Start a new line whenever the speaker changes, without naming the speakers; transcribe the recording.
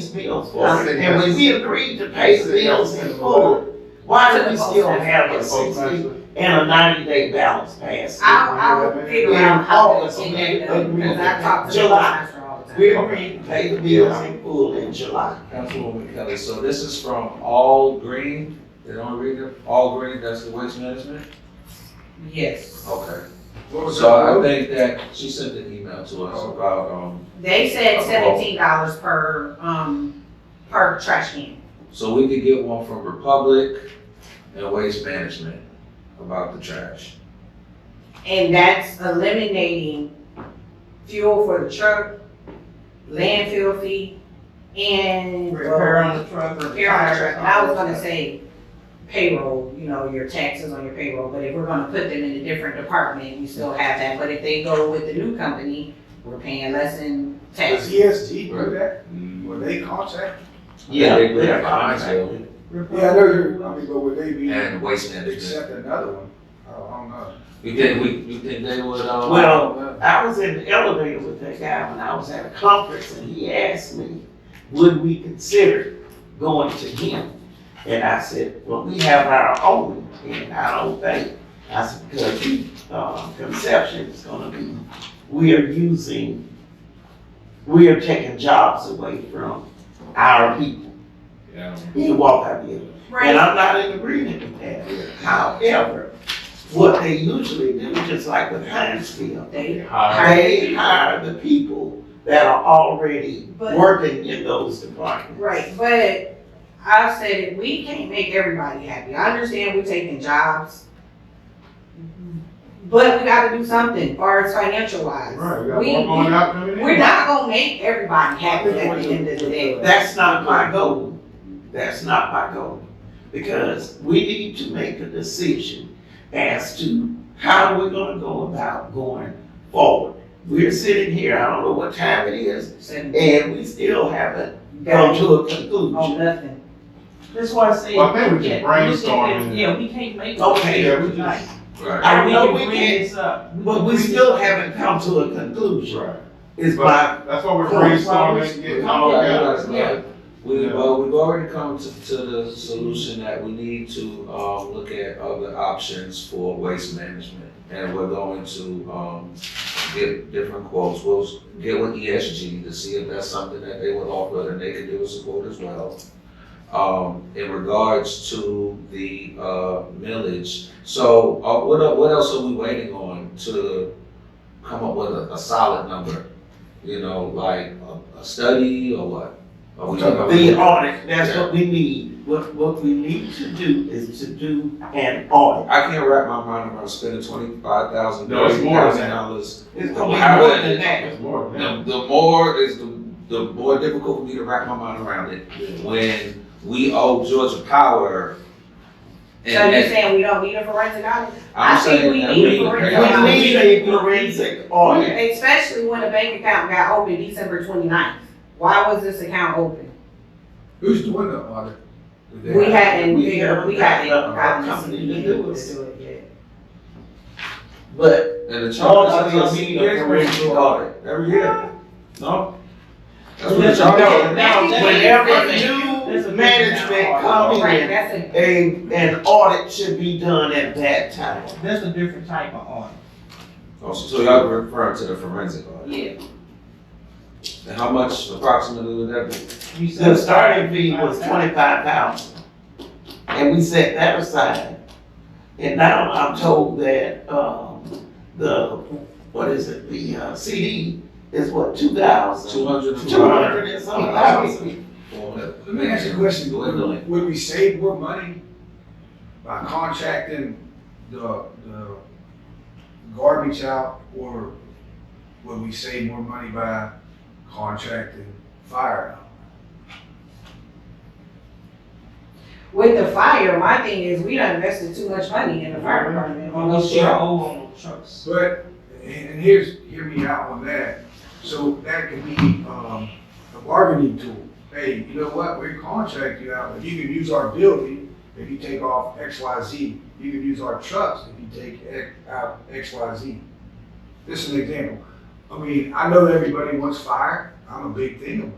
Um, And when we agreed to pay the bills in full, why do we still have a sixty and a ninety day balance past?
I'll, I'll figure out how to get that done, because I talk to the pastor all the time.
We agreed to pay the bills in full in July.
Councilwoman Kelly, so this is from All Green, they don't read it, All Green, that's the waste management?
Yes.
Okay. So I think that she sent an email to us about, um,
They said seventeen dollars per, um, per trash can.
so we could get one from Republic and Waste Management about the trash.
And that's eliminating fuel for the truck, landfill fee, and.
Repair on the truck.
Repair on the truck. I was gonna say payroll, you know, your taxes on your payroll, but if we're gonna put them in a different department, we still have that. But if they go with the new company, we're paying less in
Does
taxes.
ESG do that? Would they contract?
Yeah.
They would have contract.
Yeah, I know, you- I mean, but would they be,
And Waste Management.
accept another one? I don't- I don't know.
You think, we, you think they would, uh?
Well, I was in the elevator with that guy when I was at a conference and he asked me, would we consider going to him? And I said, well, we have our own and I don't think, I said, because the, uh, conception is gonna be, we are using, we are taking jobs away from our people.
Yeah.
He walked out there. And I'm not in agreement with that. However, what they usually do, just like with Hinesville,
They,
they hire the people that are already
But-
working in those departments.
right, but I said it, we can't make everybody happy. I understand we're taking jobs. But we gotta do something, far as financial wise.
Right, we
We-
got one going out coming in.
We're not gonna make everybody happy at the end of the day.
That's not my goal. That's not my goal. Because we need to make a decision as to how we're gonna go about going forward. We're sitting here, I don't know what time it is, and we still haven't come
Got
to a
on
conclusion.
Oh, nothing.
That's why I say.
Well, I think we can
Yeah, we can't-
brainstorm and-
Yeah, we can't make.
Okay.
Yeah, we
Like,
just,
Right,
I know we
bring
can't,
this up. We
but
can
we
bring
still
this-
haven't come to a conclusion.
right.
Is my
But that's why we're
Well,
brainstorming, getting all together.
Yeah.
we, well, we've already come to, to the solution that we need to, um, look at other options for waste management. And we're going to, um, get different quotes, we'll s- get with ESG to see if that's something that they would offer, and they can give us a quote as well. Um, in regards to the, uh, millage, so, uh, what, el- what else are we waiting on to come up with a, a solid number? You know, like a, a study or what? Are we-
The audit, that's what we need. What, what we need to do is to do an audit.
I can't wrap my mind around spending twenty-five thousand,
No, it's
thirty
more than
thousand
that.
dollars.
It's gonna
How
be more
is
than
it?
that.
It's more than that.
The, the more is, the, the more difficult for me to wrap my mind around it. When we owe Georgia Power.
So
and-
you're
and
saying we don't need a forensic audit?
I'm
I think
saying
we
that
need
we-
to bring
Yeah.
it
We need a forensic audit.
Especially when the bank account got opened December 29th. Why was this account open?
Who's doing the audit?
We hadn't,
We
figured- we
haven't
hadn't
got enough
gotten
company
this
to
to
do
do
it.
it yet.
But
And the
all
charge
of
is
us
eighteen
need Oh, a
years we do
forensic
audit,
audit every year. No?
that's what the charge
No,
is.
no,
That's-
whenever
that's-
that's a
new
good
management
audit.
comes
Right,
in,
that's it.
a, an audit should be done at that time.
That's a different type of audit.
Oh, So y'all referring to the forensic audit,
Yeah.
and how much approximately would that be?
You
The
said
starting fee was twenty-five thousand, and we set that aside. And now I'm told that, um, the, what is it, the, uh, CD is what, two thousand?
Two hundred and
Two hundred and some thousand.
Let me ask you a question,
Dwindling.
would, would we save more money by contracting the, the garbage out? Or would we save more money by contracting fire out?
With the fire, my thing is, we done invested too much money in the fire department on
Almost
those
your
trucks.
old on the trucks.
But, and and here's, hear me out on that. So that could be, um, a bargaining tool. Hey, you know what, we contract you out, if you can use our building, if you take off X, Y, Z, you can use our trucks if you take X, out X, Y, Z. This is an example. I mean, I know that everybody wants fire, I'm a big thing of it.